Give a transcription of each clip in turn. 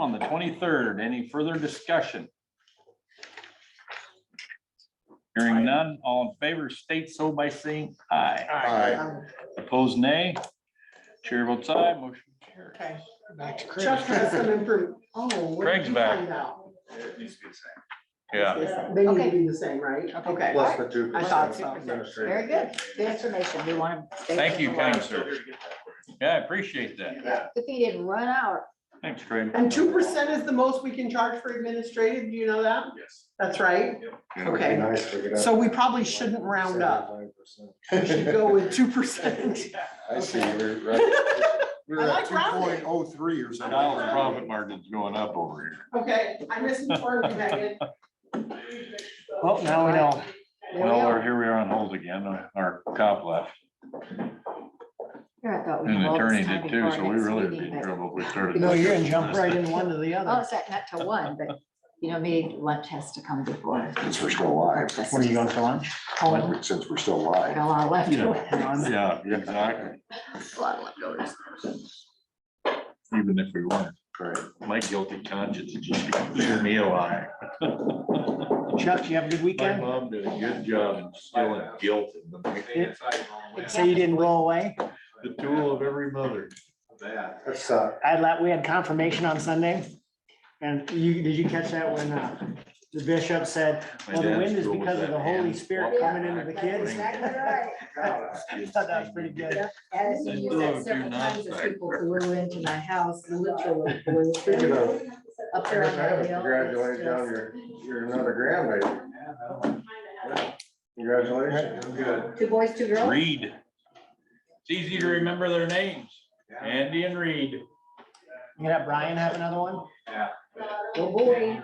on the twenty-third. Any further discussion? Hearing none, all in favor state so by saying aye. Aye. Um, Opposed, nay. Chair votes aye, motion carried. Okay, Back to Chris. Chuck has some info, oh. what did Craig's you back. find out? It needs to be the same. They need Okay. to be the same, right? Okay. Plus the two. I thought so. Very good. Good information. We want to. stay Thank you, with the kind line. sir. Yeah, I appreciate that. Yeah. If he didn't run out, Thanks, Craig. And two percent is the most we can charge for administrative, do you know that? Yes. That's right. Okay. So we probably shouldn't round up. We should go with two percent. I see, we're right. We're I at like two rounding. point oh three or something. Dollar profit margin's going up over here. Okay, I misinformed you, Megan. Well, now we know. there we Well, we're- are. here we are on hold again. Our cop left. Here, I thought we And had the all this attorney time did too, before so our we next really meeting, did but- trouble if we started. No, you're gonna jump right into one or the Oh, other. it's not, not till one, but you know, maybe lunch has to come before. Since we're still alive. What are you going for lunch? Since we're still alive. Got a lot left. Yeah. A Yeah, exactly. lot leftovers. Even if we weren't. Right. My guilty conscience is just keeping me alive. Chuck, you have a good My weekend? mom did a good job in instilling guilt in them. Say you didn't go away? The tool of every mother. That's, uh, I let, we had confirmation on Sunday. And you, did you catch that when uh, the bishop said, My well, the dad's wind is tool was because of that the Holy hand Spirit walking coming into the back kids. swing. I thought that was pretty good. And They you "Oh, do said do several not times as like people who were into my house, literally. were Speaking of- Up I there on haven't that hill. congratulated it's John, you're, just- you're another grandbaby. Yeah. Congratulations. Good. Two boys, two girls. Reed. It's easy to remember their names. Andy and Reed. You gonna have Brian have another one? Oh, boy.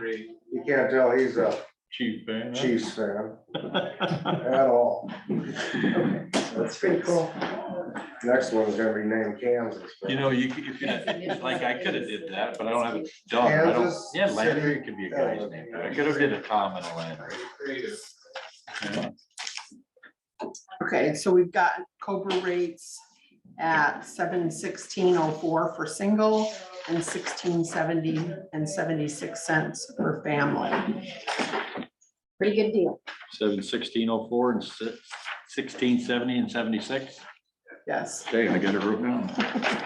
You can't tell he's a Chief. eh? Chiefs fan at all. That's pretty cool. Next one's gonna be named Kansas. but- You know, you, could- if you, like, I could have did that, but I don't have a dog. I don't- Kansas Yeah, City. Landry could be a guy's name. but I could have did a Tom and a Landry. Okay, so we've got Cobra rates at seven sixteen oh four for single and sixteen seventy and seventy-six cents for family. Pretty good deal. Seven sixteen oh four and sixteen seventy and seventy-six. Yes, Okay, I got it wrote down.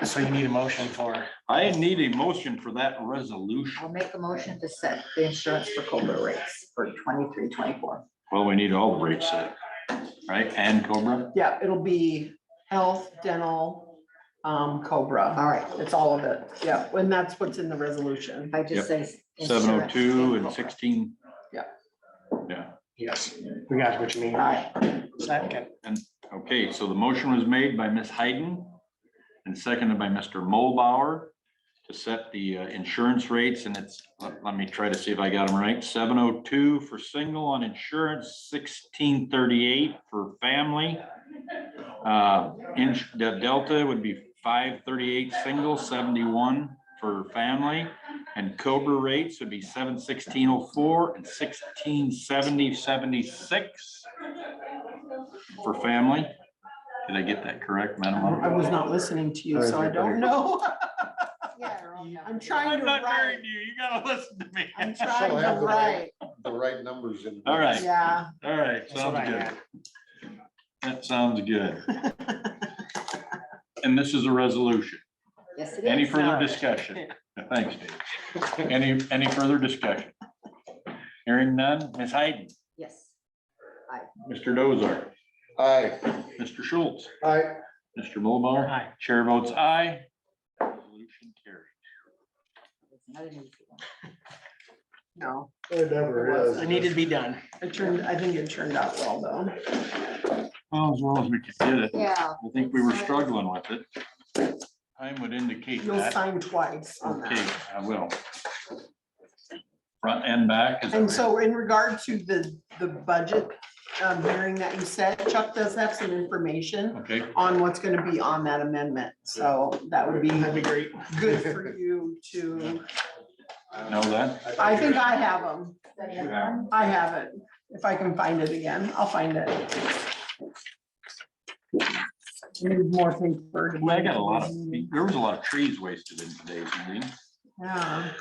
So you need a motion for. I need a motion for that resolution. I'll make a motion to set the insurance for Cobra rates for twenty-three, twenty-four. Well, we need all the rates set, right? And Cobra? yeah, it'll be health, dental, um, Cobra. All right. It's all of it. Yeah, and that's what's in the resolution. If I just say. Seven oh insurance, two and Cobra. sixteen. Yeah. Yeah, Yes, we got what you mean. All right, Second, okay, so the motion was made by Ms. Hayden and seconded by Mr. Mulbauer to set the uh, insurance rates and it's, let let me try to see if I got them right. Seven oh two for single on insurance, sixteen thirty-eight for family. Uh, ins- the delta would be five thirty-eight single, seventy-one for family. And Cobra rates would be seven sixteen oh four and sixteen seventy seventy-six for family. Did I get that correct, Madam? I Auditor? was not listening to you, so I don't know. yeah, they're all done. I'm trying to write. you. You gotta listen to me. I'm trying So I have to the write. right- The right numbers in. All right. Yeah, All right, That's what sounds I good. had. That sounds good. And this is a resolution. Yes, it is. Any further not. discussion? Thanks, Dave. Any, any further discussion? Hearing none. Ms. Hayden, Yes. Mr. Dozar, Aye. Mr. Schultz, Aye. Mr. Mulbar. Aye. Chair votes aye. Resolution carried. It's another new one. no, It never is. it needed to be done. it turned, I think it turned out well, though. Well, as well as we could get it. Yeah. I think we were struggling with it. Time would indicate You'll that. sign twice on that. Okay, I will. Front and back. is that And right? so in regard to the, the budget um, hearing that you said, Chuck does have some information Okay, on what's gonna be on that amendment, so that would be great. good for you to, know that. I think I have them, Yeah. I have it. If I can find it again, I'll find it. Need more paper. Well, I got a lot of, there was a lot of trees wasted in today's meeting. Yeah,